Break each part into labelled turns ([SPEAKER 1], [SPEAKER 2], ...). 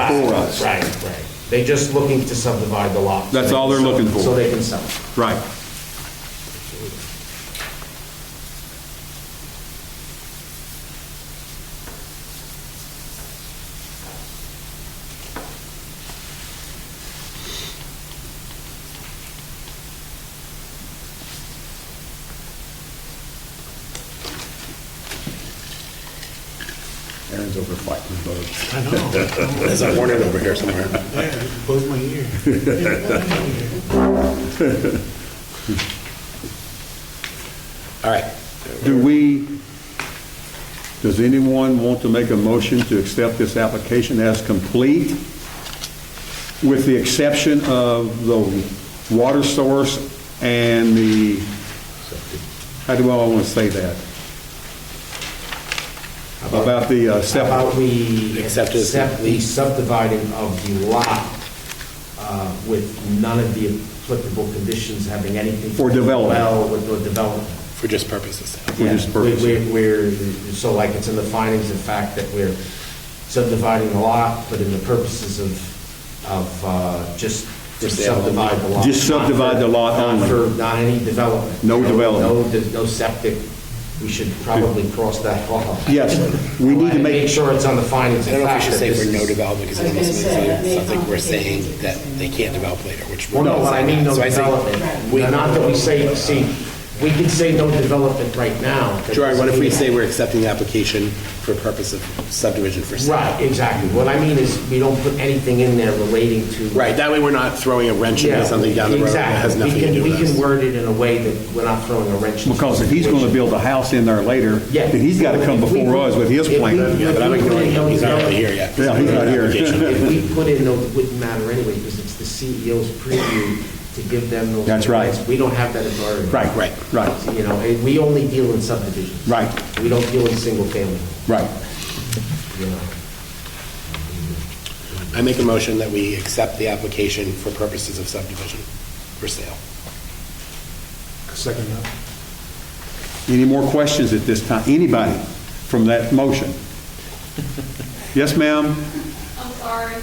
[SPEAKER 1] school routes.
[SPEAKER 2] Right, right. They're just looking to subdivide the lot. so
[SPEAKER 1] That's
[SPEAKER 2] they
[SPEAKER 1] all
[SPEAKER 2] can
[SPEAKER 1] they're
[SPEAKER 2] sell-
[SPEAKER 1] looking for.
[SPEAKER 2] So they can sell it.
[SPEAKER 1] Right.
[SPEAKER 3] Aaron's over fighting bugs.
[SPEAKER 4] I know.
[SPEAKER 3] There's a hornet over here somewhere.
[SPEAKER 4] Yeah, close my ear.
[SPEAKER 3] All right.
[SPEAKER 1] Do we, does anyone want to make a motion to accept this application as complete? With the exception of the water source and the, how do I want to say that? About the uh,
[SPEAKER 2] How About
[SPEAKER 1] septic,
[SPEAKER 2] we
[SPEAKER 3] Accept it as
[SPEAKER 2] accept the
[SPEAKER 3] complete.
[SPEAKER 2] subdividing of the lot uh, with none of the applicable conditions having anything.
[SPEAKER 1] For
[SPEAKER 2] to do
[SPEAKER 1] development.
[SPEAKER 2] Well, with the development.
[SPEAKER 3] For just purposes.
[SPEAKER 1] For just
[SPEAKER 2] Yeah,
[SPEAKER 1] purpose.
[SPEAKER 2] we- we- We're, so like it's in the findings of fact that we're subdividing the lot, but in the purposes of, of uh, just to
[SPEAKER 3] For sale.
[SPEAKER 2] subdivide the lot.
[SPEAKER 1] Just subdivide the lot
[SPEAKER 2] Not for-
[SPEAKER 1] only.
[SPEAKER 2] Not for, not any development.
[SPEAKER 1] No development.
[SPEAKER 2] No, de- no septic. We should probably cross that off.
[SPEAKER 1] Yes, we need to
[SPEAKER 2] And
[SPEAKER 1] make-
[SPEAKER 2] Make sure it's on the findings
[SPEAKER 3] I
[SPEAKER 2] of
[SPEAKER 3] don't know if we
[SPEAKER 2] fact.
[SPEAKER 3] should
[SPEAKER 2] that
[SPEAKER 3] say
[SPEAKER 2] this
[SPEAKER 3] for no
[SPEAKER 2] is-
[SPEAKER 3] development, because
[SPEAKER 5] I
[SPEAKER 3] it
[SPEAKER 5] was
[SPEAKER 3] almost
[SPEAKER 5] gonna
[SPEAKER 3] makes
[SPEAKER 5] say, that
[SPEAKER 3] it
[SPEAKER 5] may
[SPEAKER 3] sound like we're saying
[SPEAKER 5] complicate things.
[SPEAKER 3] that they can't develop later, which.
[SPEAKER 2] Well, no, what I mean, no
[SPEAKER 3] So think
[SPEAKER 2] development.
[SPEAKER 3] we-
[SPEAKER 2] Now, Not that we say, see, we can say no development right now. That
[SPEAKER 3] Gerard, what if
[SPEAKER 2] doesn't
[SPEAKER 3] we
[SPEAKER 2] mean-
[SPEAKER 3] say we're accepting the application for purpose of subdivision for sale?
[SPEAKER 2] Right, exactly. What I mean is, we don't put anything in there relating to.
[SPEAKER 3] Right, that way we're not throwing a wrench
[SPEAKER 2] Yeah,
[SPEAKER 3] into something down the road that has
[SPEAKER 2] exactly. We
[SPEAKER 3] nothing to
[SPEAKER 2] can-
[SPEAKER 3] do with
[SPEAKER 2] We can
[SPEAKER 3] us.
[SPEAKER 2] word it in a way that we're not throwing a wrench. into
[SPEAKER 1] because if he's going to
[SPEAKER 2] the
[SPEAKER 1] build a house in there later,
[SPEAKER 2] Yeah.
[SPEAKER 1] then he's got to come before us with his
[SPEAKER 2] If we-
[SPEAKER 1] plan.
[SPEAKER 3] Yeah, but I'm ignoring him, he's not really here yet.
[SPEAKER 1] Yeah, he's not here.
[SPEAKER 3] Application.
[SPEAKER 2] situation. If we put in, no, it wouldn't matter anyway, because it's the CEO's preview to give them those.
[SPEAKER 1] That's right.
[SPEAKER 2] guidelines. We don't have that authority.
[SPEAKER 1] Right, right, right,
[SPEAKER 2] You know, and we only deal in subdivisions.
[SPEAKER 1] Right.
[SPEAKER 2] We don't deal in single family,
[SPEAKER 1] right.
[SPEAKER 2] you know.
[SPEAKER 3] I make a motion that we accept the application for purposes of subdivision for sale.
[SPEAKER 4] Second that.
[SPEAKER 1] Any more questions at this time? Anybody from that motion? Yes, ma'am?
[SPEAKER 6] I'm sorry.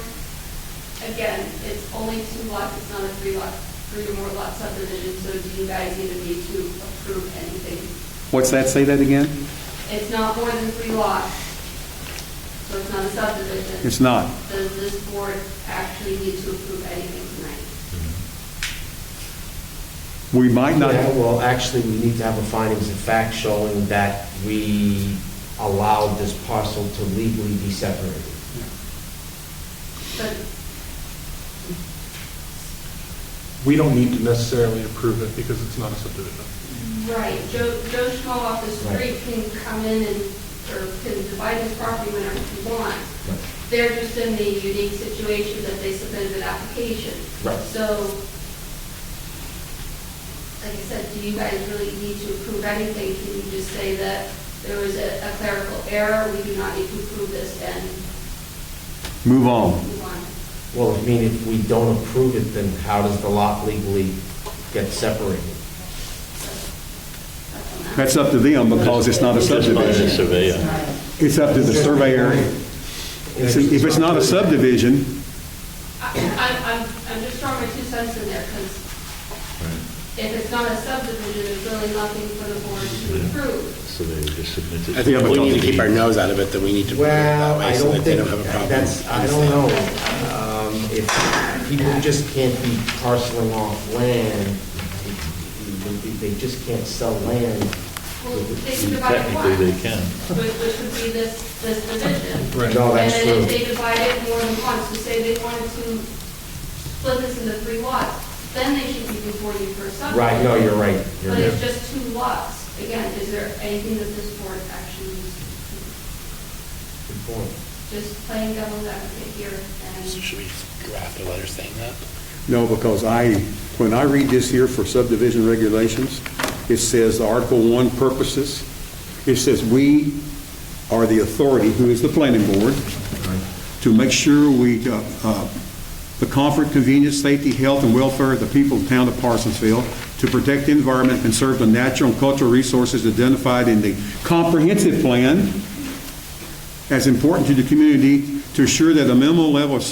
[SPEAKER 6] Again, it's only two lots, it's not a three lot, three or more lot subdivision, so do you guys even need to approve anything?
[SPEAKER 1] What's that? Say that again?
[SPEAKER 6] It's not more than three lots, so it's not a subdivision.
[SPEAKER 1] It's not.
[SPEAKER 6] Does this board actually need to approve anything tonight?
[SPEAKER 1] We might not,
[SPEAKER 2] Yeah, Well, actually, we need to have a findings of fact showing that we allowed this parcel to legally be separated.
[SPEAKER 6] But
[SPEAKER 4] We don't need to necessarily approve it because it's not a subdivision.
[SPEAKER 6] Right, Joe, Joe Schmo off the
[SPEAKER 2] Right.
[SPEAKER 6] street can come in and, or can divide his property whenever he wants.
[SPEAKER 2] Right.
[SPEAKER 6] They're just in the unique situation that they submitted an application.
[SPEAKER 2] Right.
[SPEAKER 6] So, like I said, do you guys really need to approve anything? Can you just say that there was a a clerical error, we do not need to approve this and
[SPEAKER 1] move on.
[SPEAKER 6] move on?
[SPEAKER 2] Well, I mean, if we don't approve it, then how does the lot legally get separated?
[SPEAKER 1] That's up to them because it's not a subdivision. It's up to the surveyor. See, If it's not a subdivision,
[SPEAKER 6] I- I'm, I'm, I'm just throwing my two cents in there, because if it's not a subdivision, there's really nothing for the board to approve.
[SPEAKER 7] So they would just submit it.
[SPEAKER 3] I think if we need to keep our nose out of it, then we need to put it that
[SPEAKER 2] Well,
[SPEAKER 3] way
[SPEAKER 2] I
[SPEAKER 3] so
[SPEAKER 2] don't
[SPEAKER 3] that they
[SPEAKER 2] think,
[SPEAKER 3] don't have a problem.
[SPEAKER 2] that's, I don't know. Um, If people just can't be parceling off land, they- they just can't sell land.
[SPEAKER 6] Well, they can divide it
[SPEAKER 7] Technically,
[SPEAKER 6] once.
[SPEAKER 7] they can.
[SPEAKER 6] Which, which would be this, this division.
[SPEAKER 2] Right. No, that's
[SPEAKER 6] And then if
[SPEAKER 2] true.
[SPEAKER 6] they divide it more than once, to say they wanted to split this into three lots, then they should be before you for a subdivision.
[SPEAKER 2] Right, no, you're right. You're
[SPEAKER 6] But it's
[SPEAKER 2] right.
[SPEAKER 6] just two lots. Again, is there anything that this board actually needs to approve?
[SPEAKER 2] Good point.
[SPEAKER 6] just playing devil's advocate here, and
[SPEAKER 3] So Should we draft a letter saying that?
[SPEAKER 1] No, because I, when I read this here for subdivision regulations, it says Article 1 purposes, it says we are the authority, who is the planning board, to make sure we, uh, uh, the comfort, convenience, safety, health, and welfare of the people of the town of Parsonsville, to protect the environment and conserve the natural and cultural resources identified in the comprehensive plan as important to the community, to assure that a minimal level of